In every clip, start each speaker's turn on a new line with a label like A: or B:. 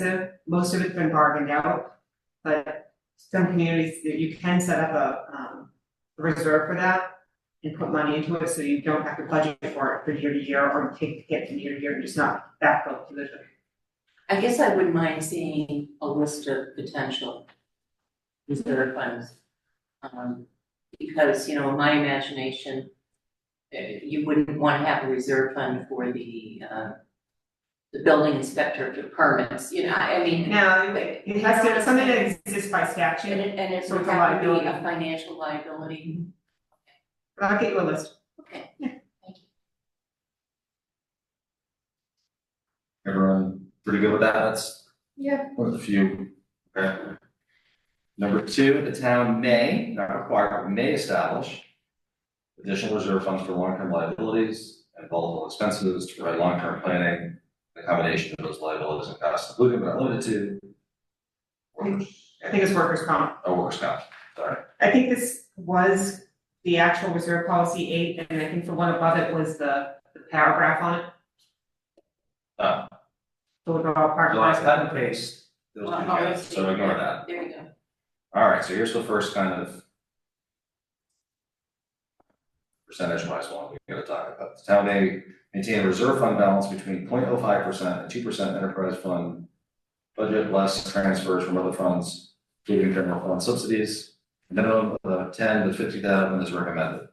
A: expensive, most of it's been bargained out. But some communities, that you can set up a um reserve for that and put money into it, so you don't have to budget for it for year to year or take it from year to year and just not backfill position.
B: I guess I wouldn't mind seeing a list of potential reserve funds. Um, because, you know, in my imagination, uh, you wouldn't want to have a reserve fund for the, uh, the building inspector to permits, you know, I, I mean.
A: Now,
B: but-
A: it has to, something that exists by
B: And
A: statute,
B: it, and it's
A: So it's a
B: have to be a
A: liability.
B: financial liability.
A: but I'll get you a list.
B: Okay,
C: Everyone pretty good with that? That's.
B: Yeah.
C: With a few. Okay. Number two, the town may, not require, but may establish. Additional reserve funds for long-term liabilities and volatile expenses to provide long-term planning, accommodation of those liabilities and costs, including but not limited to. Workers,
A: I think it's workers' comp.
C: oh, workers' comp, sorry.
A: I think this was the actual reserve policy eight, and I think the one above it was the the paragraph on it.
C: Uh,
A: The overall part.
C: So I cut and paste those two
B: Well, I'll
C: together, so ignore that.
B: there you go.
C: All right, so here's the first kind of. Percentage wise one we gotta talk about. The town may maintain a reserve fund balance between 0.05 percent and two percent enterprise fund. Budget less transfers from other funds, including general fund subsidies. Minimum of ten to fifty thousand is recommended.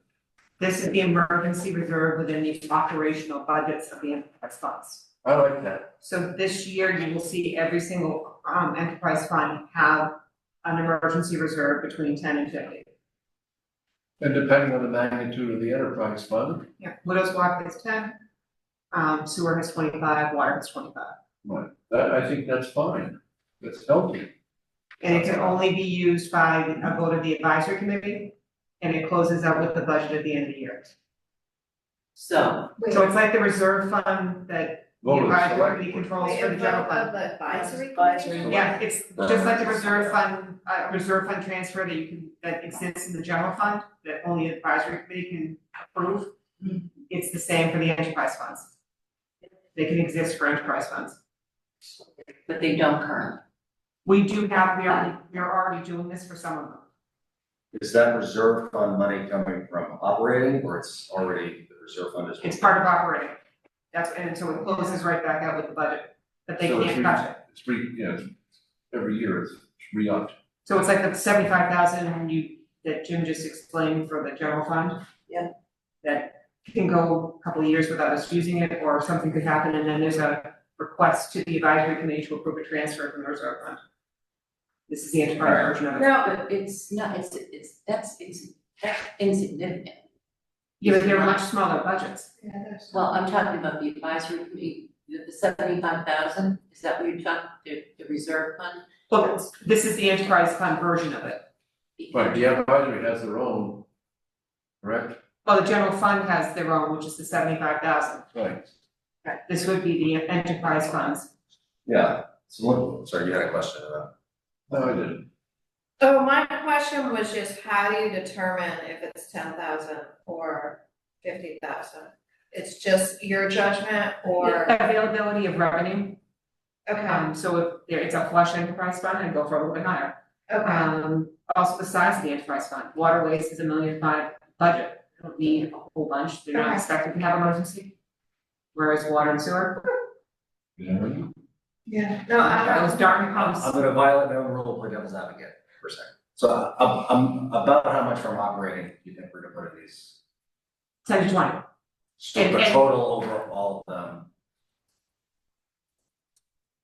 A: This is the emergency reserve within the operational budgets of the enterprise funds.
D: I like that.
A: So this year, you will see every single um enterprise fund have an emergency reserve between ten and fifty.
D: And depending on the magnitude of the enterprise fund,
A: Yeah. Widows walk is ten, um sewer has twenty five, water has twenty five.
D: right, that, I think that's fine. That's healthy.
A: And it can only be used by a vote of the advisory committee, and it closes out with the budget at the end of the year.
B: So,
E: Wait,
A: So it's like the reserve fund that the
D: Vote of the
A: advisory
D: select
A: committee
D: board.
A: controls
E: wait,
A: for the
E: a
A: general
E: vote
A: fund.
E: of advisory
B: Advisory
E: committee?
A: Yeah, it's just like the reserve fund, uh, reserve fund transfer that you can, that exists in the general fund, that only advisory committee can approve. It's the same for the enterprise funds. They can exist for enterprise funds.
B: but they don't current.
A: We do have, we are, we are already doing this for some of them.
C: Is that reserve fund money coming from operating or it's already, the reserve fund is?
A: It's part of operating. That's, and so it closes right back out with the budget, but they
D: So it's
A: can't
D: re-
A: touch it.
D: It's re, yeah, it's- every year it's re-upped.
A: So it's like the seventy-five thousand you, that Jim just explained for the general fund.
B: Yeah.
A: That can go a couple of years without us using it, or something could happen, and then there's a request to the advisory committee to approve a transfer from the reserve fund. This is the enterprise version of it.
B: No, but it's not, it's, it's, that's, it's, that's insignificant.
A: Yeah, but they're much smaller budgets.
B: Well, I'm talking about the advisory committee, the seventy-five thousand, is that what you're talking, the, the reserve fund?
A: But this is the enterprise fund version of it.
D: Right, the advisory has their own, correct?
A: Well, the general fund has their own, which is the seventy-five thousand.
D: Right.
A: This would be the enterprise funds.
C: Yeah, so, look- sorry, you had a question about.
D: No, I didn't.
E: So my question was just how do you determine if it's ten thousand or fifty thousand? It's just your judgment or,
A: Availability of revenue,
E: okay,
A: um, so if there, it's a flush enterprise fund, I'd go for a little bit higher.
E: okay,
A: Um, also the size of the enterprise fund, waterways is a million five budget, They don't need a whole bunch, they're not
E: Okay.
A: expected to have emergency. Whereas water and sewer,
E: yeah, no, I don't.
A: those darn pumps,
C: I'm gonna violate my own rule, play devil's advocate for a second. So uh, I'm, I'm about how much from operating you think we're gonna put in these?
A: ten to twenty,
C: So the
A: And- and-
C: total over all of them,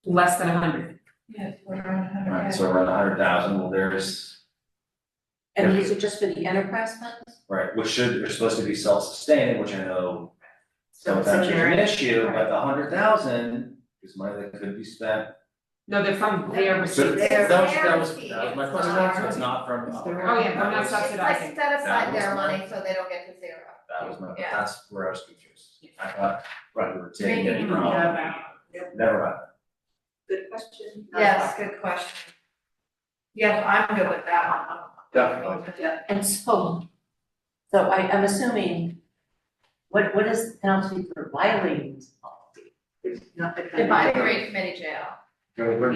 A: less than a hundred.
E: Yes, we're on a hundred.
C: right, so around a hundred thousand, well, there's,
B: And these are just for the enterprise funds?
C: right, which should, are supposed to be self-sustaining, which I know
A: So it's in
C: sometimes is
A: there.
C: an issue, but the hundred thousand is money that could be spent.
A: No, they're from their
C: So
A: receipts,
E: They're
C: that was, that was,
E: guaranteed,
C: that was my
E: it's
C: question,
E: not-
C: so it's not from operating.
A: Oh, yeah, we're
C: That
A: not
C: was-
E: It's like set aside their money so they don't get to zero.
C: That was my,
E: Yeah.
C: that's where I was confused. I thought, right, we were taking it
E: Taking
C: from.
E: it
C: Never mind.
B: Good question.
E: Yes, good question. Yes, I'm good with that one.
D: Definitely.
B: Yeah, and so, so I, I'm assuming, what, what is the penalty for violating this policy? There's not the kind of-
E: Advisory committee jail.
D: Gotta work